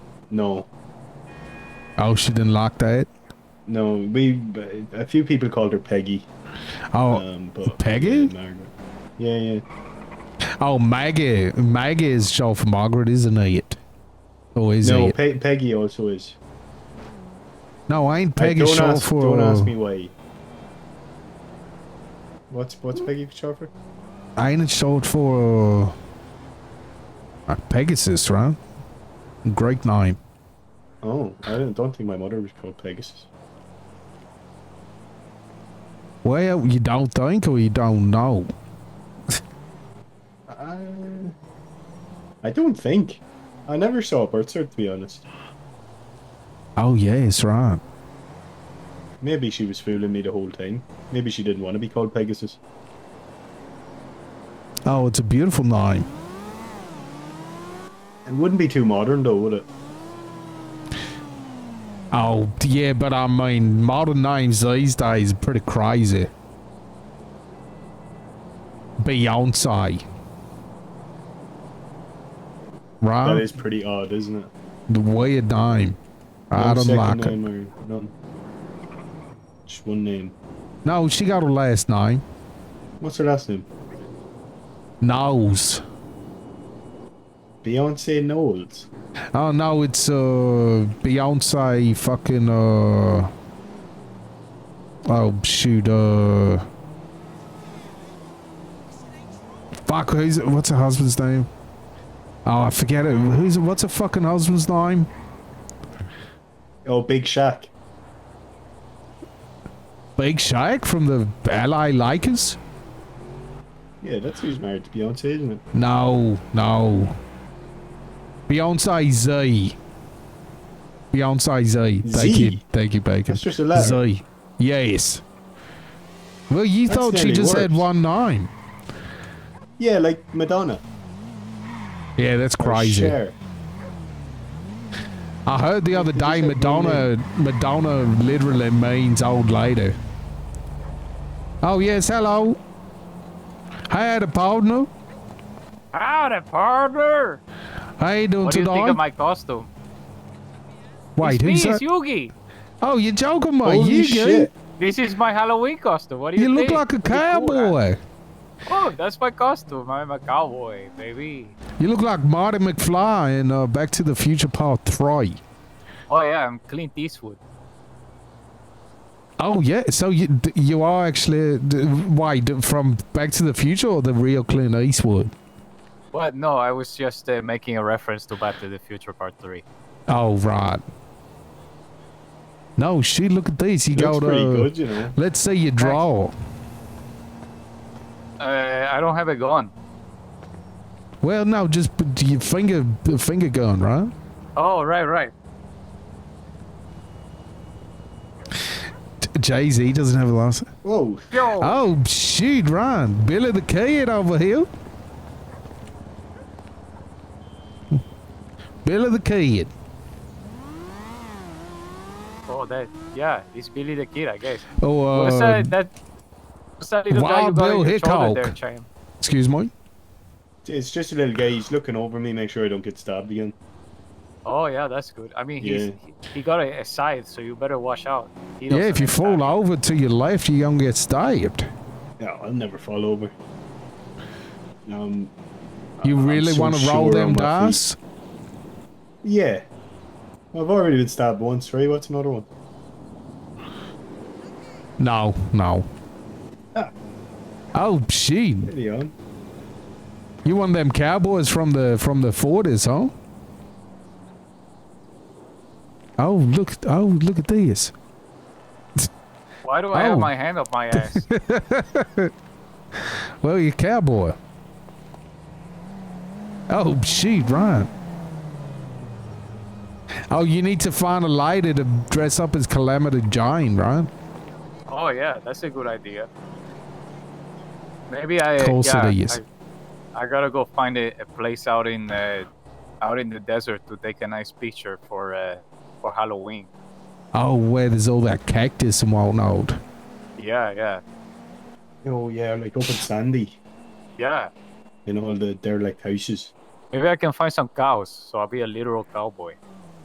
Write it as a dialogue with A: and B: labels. A: No,
B: Oh, she didn't like that.
A: no. We a few people called her Peggy.
B: Oh,
A: um, but
B: Peggy?
A: Yeah, Margaret. Yeah, yeah.
B: oh, Maggie. Maggie is short for Margaret, isn't it? Or is
A: no,
B: it?
A: Pe- Peggy also is.
B: No, ain't
A: I-
B: Peggy
A: don't
B: short
A: ask,
B: for?
A: Don't ask
B: uh,
A: me why. What's what's Peggy short for?
B: Ain't it short for? Uh, Pegasus, right? Great name.
A: Oh, I don't, don't think my mother was called Pegasus.
B: Well, you don't think or you don't know.
A: I, Uh, I don't think. I never saw a birth cert to be honest.
B: Oh yes, right.
A: Maybe she was fooling me the whole time. Maybe she didn't want to be called Pegasus.
B: Oh, it's a beautiful name.
A: It wouldn't be too modern though, would it?
B: Oh yeah, but I mean, modern names these days are pretty crazy. Beyonce. Right?
A: That is pretty odd, isn't it?
B: the weird name. I
A: No
B: don't
A: second
B: like it.
A: name or nothing. Just one name.
B: No, she got her last name.
A: What's her last name?
B: Knowles.
A: Beyonce Knowles.
B: Oh no, it's uh Beyonce fucking uh Oh shoot, uh Fuck who's what's her husband's name? Oh I forget it. Who's what's her fucking husband's name?
A: Oh, Big Shaq.
B: Big Shaq from the LA Lakers?
A: Yeah, that's who's married to Beyonce, isn't it?
B: No, no. Beyonce Z. Beyonce Z. Thank
A: Z?
B: you. Thank you, Bacon.
A: That's just a letter.
B: Z. Yes. Well, you
A: That's
B: thought she
A: nearly
B: just had
A: worse.
B: one name.
A: Yeah, like Madonna.
B: Yeah, that's
A: or
B: crazy.
A: Cher.
B: I heard the other
A: They just
B: day
A: had one
B: Madonna Madonna literally means old lady. Oh yes, hello. I had a partner.
C: Howdy, partner!
B: How you doing
C: What do you
B: today?
C: think of my costume?
B: Wait,
C: it's me,
B: who's
C: it's
B: that?
C: Yugi!
B: Oh, you're joking, mate.
A: Holy
B: you good?
A: shit.
C: This is my Halloween costume. What do you,
B: You look
C: think?
B: like a
C: Pretty cool, right?
B: cowboy.
C: oh, that's my costume. I'm a cowboy, baby.
B: You look like Marty McFly in uh, Back to the Future Part 3.
C: Oh yeah, I'm Clint Eastwood.
B: Oh, yeah. So you d- you are actually. D- why? D- from Back to the Future or the real Clint Eastwood?
C: But no, I was just uh, making a reference to Back to the Future Part 3.
B: Oh, right. No, she look at this. You
A: Looks
B: got
A: pretty
B: uh,
A: good, you know.
B: Let's see you draw.
C: Uh, I don't have a gun.
B: Well, no, just put your finger finger gun, right?
C: Oh, right, right.
B: Jay Z doesn't have a license.
A: Whoa.
C: Yo!
B: Oh, shoot, Ryan. Billy the Kid over here. Billy the Kid.
C: Oh, that, yeah, it's Billy the Kid, I guess.
B: Oh,
C: What's
B: uh,
C: that, that, what's that little guy you
B: Wild
C: got on
B: Bill
C: your shoulder there,
B: Hickok.
C: Chaim?
B: excuse me.
A: It's just a little guy. He's looking over me, make sure I don't get stabbed again.
C: Oh, yeah, that's good. I mean, he's,
A: Yeah.
C: he, he got a, a scythe, so you better watch out. He
B: Yeah, if
C: doesn't
B: you
C: attack.
B: fall over to your left, you're gonna get stabbed.
A: No, I'll never fall over. Um,
B: You
A: I'm
B: really
A: so
B: want to roll
A: sure
B: them
A: on my feet.
B: dice?
A: yeah. I've already been stabbed once, right? What's another one?
B: No, no.
A: Ah.
B: Oh shit!
A: Steady on.
B: You one of them cowboys from the from the forties, huh? Oh look! Oh look at this!
C: Why do I
B: Oh.
C: have my hand up my ass?
B: Well, you're a cowboy. Oh shit! Right. Oh, you need to find a lady to dress up as Calamity Jane, right?
C: oh yeah, that's a good idea. Maybe I.
B: Course it
C: yeah,
B: is.
C: I, I gotta go find a, a place out in uh, out in the desert to take a nice picture for uh, for Halloween.
B: Oh, where there's all that cactus and whatnot.
C: Yeah, yeah,
A: Oh, yeah, like up in Sandy.
C: yeah.
A: In all the derelict houses.
C: Maybe I can find some cows, so I'll be a literal cowboy.